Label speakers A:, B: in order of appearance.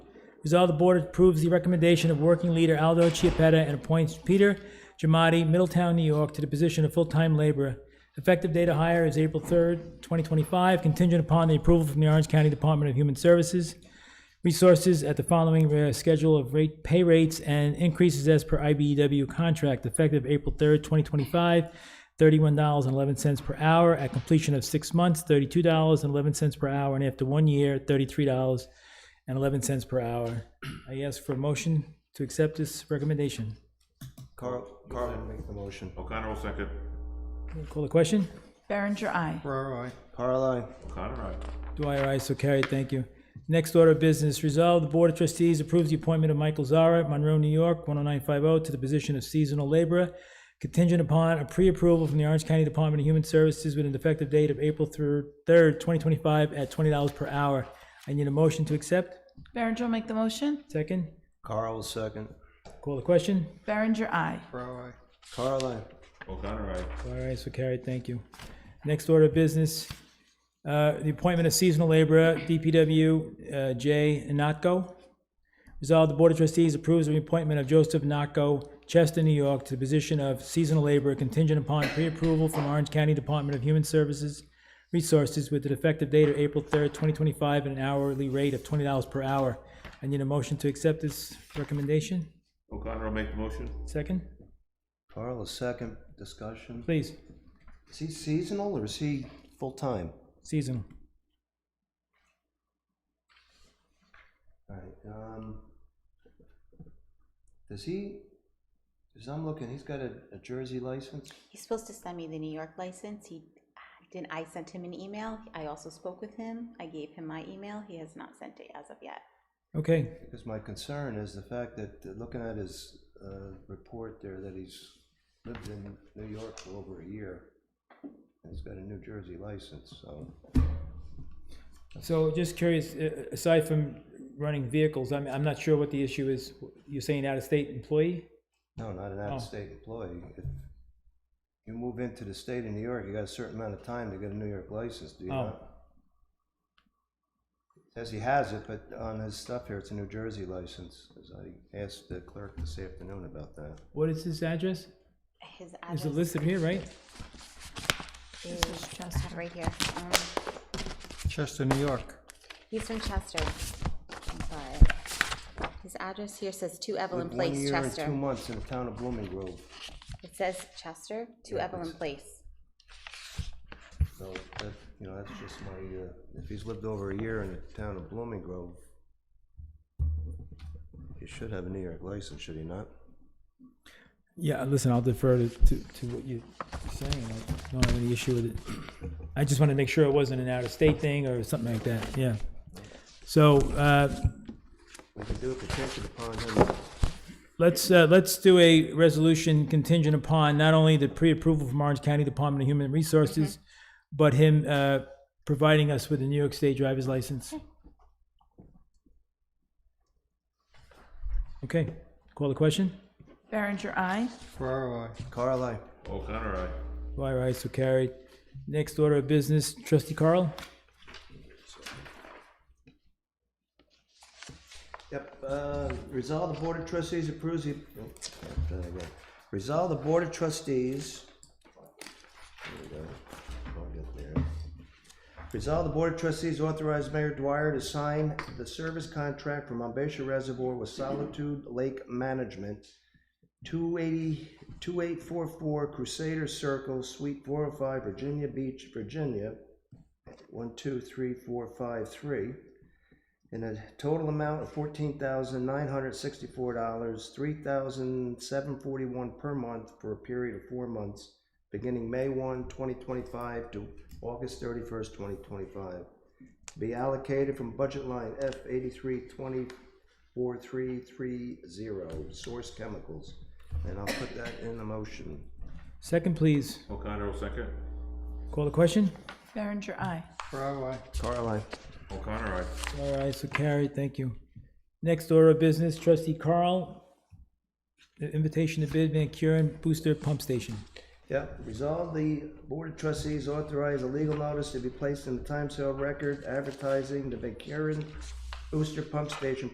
A: Resolve the board approves the recommendation of working leader Aldo Chiapetta and appoints Peter Giamatti, Middletown, New York, to the position of full-time laborer. Effective date of hire is April 3rd, 2025, contingent upon the approval from the Orange County Department of Human Services. Resources at the following uh, schedule of rate, pay rates and increases as per IBEW contract, effective April 3rd, 2025, $31.11 per hour. At completion of six months, $32.11 per hour, and after one year, $33.11 per hour. I ask for a motion to accept this recommendation.
B: Carl, Carl will make the motion.
C: O'Connor will second.
A: Call the question?
D: Berenger, aye.
B: Ferraro, aye. Carl, aye.
C: O'Connor, aye.
A: Dwyer, aye, so carried, thank you. Next order of business, resolve the Board of Trustees approves the appointment of Michael Zara, Monroe, New York, 10950, to the position of seasonal laborer, contingent upon a pre-approval from the Orange County Department of Human Services with an effective date of April 3rd, 2025, at $20 per hour. I need a motion to accept.
D: Berenger will make the motion.
A: Second,
B: Carl will second.
A: call the question.
D: Berenger, aye.
B: Ferraro, aye. Carl, aye.
C: O'Connor, aye.
A: All right, so carried, thank you. Next order of business, uh, the appointment of seasonal laborer, DPW uh, J. Notko. Resolved, the Board of Trustees approves the appointment of Joseph Notko, Chester, New York, to the position of seasonal laborer contingent upon pre-approval from Orange County Department of Human Services Resources with an effective date of April 3rd, 2025, at an hourly rate of $20 per hour. I need a motion to accept this recommendation.
C: O'Connor will make the motion.
A: Second,
B: Carl will second. Discussion.
A: please,
B: Is he seasonal or is he full-time?
A: seasonal.
B: All right, um, does he, as I'm looking, he's got a, a Jersey license?
E: He's supposed to send me the New York license. He didn't. I sent him an email. I also spoke with him. I gave him my email. He has not sent it as of yet.
A: Okay,
B: Because my concern is the fact that, uh, looking at his, uh, report there, that he's lived in New York for over a year. And he's got a New Jersey license, so.
A: So just curious, a- aside from running vehicles, I'm, I'm not sure what the issue is. You're saying out-of-state employee?
B: No, not an out-of-state employee. If you move into the state of New York, you got a certain amount of time to get a New York license, do you
A: Oh.
B: not? Says he has it, but on his stuff here, it's a New Jersey license, as I asked the clerk this afternoon about that.
A: What is his address?
E: His
A: Is it
E: address
A: listed here, right?
E: is I have it right here. Um,
F: Chester, New York.
E: he's from Chester. I'm sorry. His address here says Two Evelyn
B: Lived One
E: Place,
B: year and two
E: Chester.
B: months in the town of Blooming Grove,
E: It says Chester, Two
B: Yeah,
E: Evelyn
B: please.
E: Place.
B: so that, you know, that's just my, uh, if he's lived over a year in the town of Blooming Grove, he should have a New York license, should he not?
A: Yeah, uh, listen, I'll defer to, to, to what you're saying. I don't have any issue with it. I just wanted to make sure it wasn't an out-of-state thing or something like that, yeah. So, uh,
B: We can do a contingent upon him
A: Let's, uh, let's do a resolution contingent upon not only the pre-approval from Orange County Department of Human Resources, but him, uh, providing us with a New York State driver's license. Okay, call the question.
D: Berenger, aye.
B: Ferraro, Carl, aye.
C: O'Connor, aye.
A: Dwyer, aye, so carried. Next order of business, trustee Carl?
B: Yep, uh, resolve the Board of Trustees approves the, oh, try that again. resolve the Board of Trustees. There we go. I'll get there. Resolve the Board of Trustees authorize Mayor Dwyer to sign the service contract for Monbassia Reservoir with Solitude Lake Management, 280 2844 Crusader Circle, Suite four oh five, Virginia Beach, Virginia, one, two, three, four, five, three in a total amount of fourteen thousand nine hundred sixty-four dollars, three thousand seven forty-one per month for a period of four months, beginning May 1, 2025, to August thirty-first, twenty twenty-five. Be allocated from budget line F eighty-three twenty-four three three zero, source chemicals. And I'll put that in the motion.
A: Second, please.
C: O'Connor will second.
A: Call the question?
D: Berenger, aye.
B: Caroline.
C: O'Connor, aye.
A: All right, so carried, thank you. Next order of business, trustee Carl, invitation to bid Van Kuren Booster Pump Station.
B: Yep, resolve the Board of Trustees authorize a legal notice to be placed in the time sale record advertising the Van Kuren Booster Pump Station